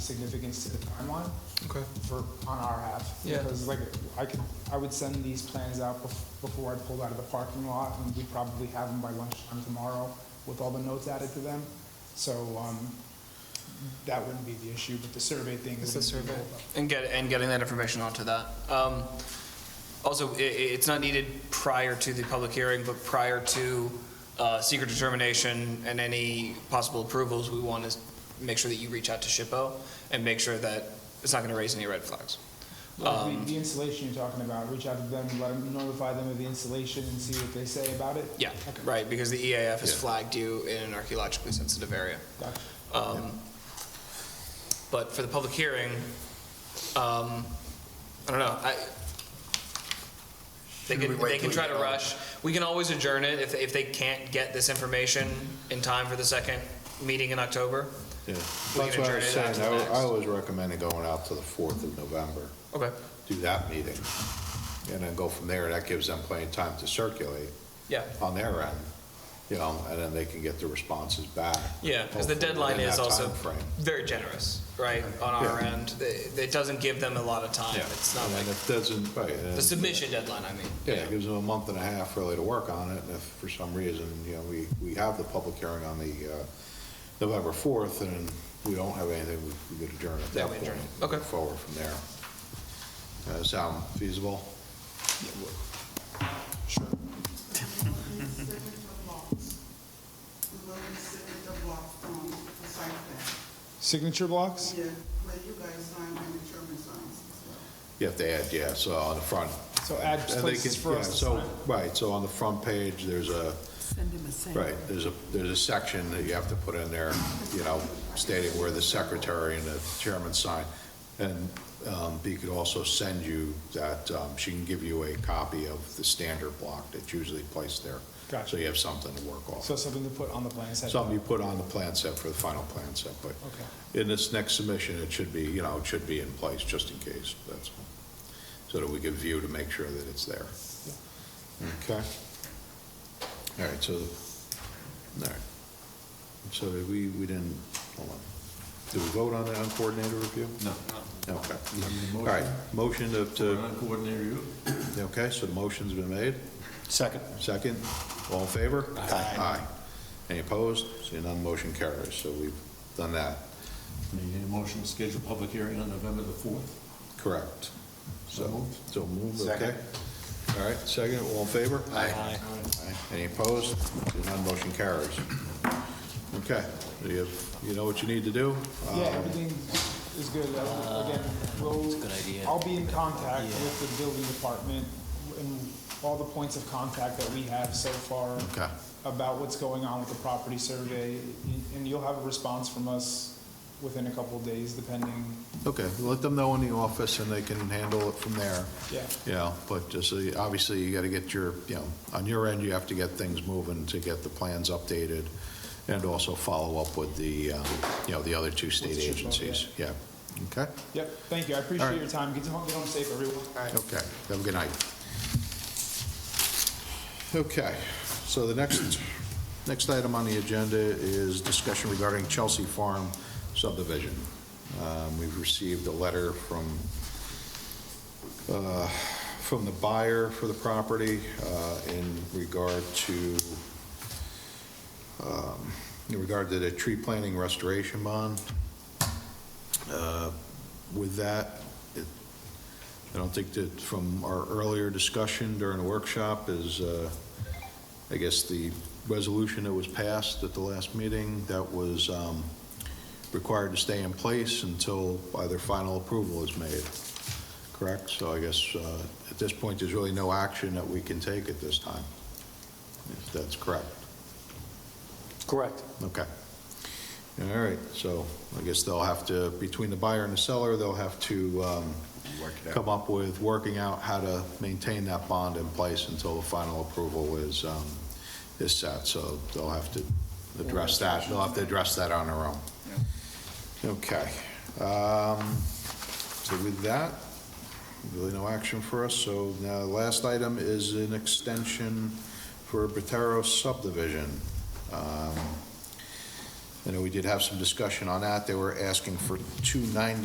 significance to the timeline Okay. for, on our half. Yeah. Because like, I could, I would send these plans out bef- before I pulled out of the parking lot, and we'd probably have them by lunchtime tomorrow with all the notes added to them. So, um, that wouldn't be the issue, but the survey thing is. It's the survey. And get, and getting that information onto that. Um, Also, i- i- it's not needed prior to the public hearing, but prior to uh, secret determination and any possible approvals, we want to make sure that you reach out to SHPO and make sure that it's not going to raise any red flags. Like Um, the, the installation you're talking about, reach out to them, let them, notify them of the installation and see what they say about it. Yeah, Okay. right, because the EAF has Yeah. flagged you in an archaeologically sensitive area. Gotcha. Um, But for the public hearing, um, I don't know, I, they Should we can, wait they can till try to oh. we- rush. We can always adjourn it if, if they can't get this information in time for the second meeting in October. We Yeah, that's can what I adjourn was it after saying, I the wa- next. I always recommended going out to the 4th of November, Okay, do that meeting, and then go from there, that gives them plenty of time to circulate yeah, on their end, you know, and then they can get their responses back. yeah, because the hopefully deadline within is that also timeframe. very generous, right, on our Yeah. end. It, it doesn't give them a lot of time. Yeah, It's not and like, then it doesn't, right. and the then- submission deadline, I mean. Yeah, it gives them a month and a half really to work on it, and if for some reason, you know, we, we have the public hearing on the uh, November 4th, and we don't have anything, we- we could adjourn at Yeah, that we point. adjourn it. and Okay. move Forward from there. Does that sound feasible? Sure. Where you sit with the block from the site plan. Signature blocks? Yeah, where you guys sign and the German signs as well. You have to add, yeah, so on the front. So add and they places can- for yeah, us to so- sign. Right, so on the front page, there's a, Send him a send. right, there's a, there's a section that you have to put in there, you know, stating where the secretary and the chairman sign. And um, Bea could also send you that, um, she can give you a copy of the standard block that's usually placed there. Gotcha. So you have something to work off. So something to put on the plan set. Something you put on the plan set for the final plan set, but Okay. in this next submission, it should be, you know, it should be in place just in case, that's all. So that we can view to make sure that it's there. Okay? All right, so, all right. So did we, we didn't, hold on. Did we vote on the uncoordinated review? No. Okay. a All right, motion to- to, Uncoordinated review? okay, so the motion's been made? Second. Second, all in favor? Aye. Aye. Any opposed? Seeing none, motion carries, so we've done that. Need a motion to schedule public hearing on November the 4th? Correct. So So, moved. so moved, okay. All right, second, all in favor? Aye. Any opposed? Seeing none, motion carries. Okay, you, have- you know what you need to do? Yeah, everything is good. Uh, Again, we'll, I'll be in contact with the building department and all the points of contact that we have so far Okay. about what's going on with the property survey, and you'll have a response from us within a couple of days, depending, Okay, let them know in the office and they can handle it from there. yeah. You know, but just, uh, obviously, you gotta get your, you know, on your end, you have to get things moving to get the plans updated and also follow up with the, um, you know, the other two state With the ship, agencies. Yeah, okay? Yep, thank you. I All appreciate right. your time. Get home, get home safe, everyone. Okay, have a good night. Okay, so the next, next item on the agenda is discussion regarding Chelsea Farm subdivision. Um, We've received a letter from, uh, from the buyer for the property uh, in regard to, um, in regard to the tree planting restoration bond. Uh, With that, it I don't think that from our earlier discussion during the workshop is, uh, I guess, the resolution that was passed at the last meeting that was um, required to stay in place until either final approval is made, correct? So I guess uh, at this point, there's really no action that we can take at this time, if that's correct. Correct. Okay. All right, so I guess they'll have to, between the buyer and the seller, they'll have to um, come up with working out how to maintain that bond in place until the final approval is, um, is set. So they'll have to address that, they'll have to address that on their own. Okay. Um, So with that, really no action for us. So now, the last item is an extension for Botero subdivision. Um, I know we did have some discussion on that. They were asking for 290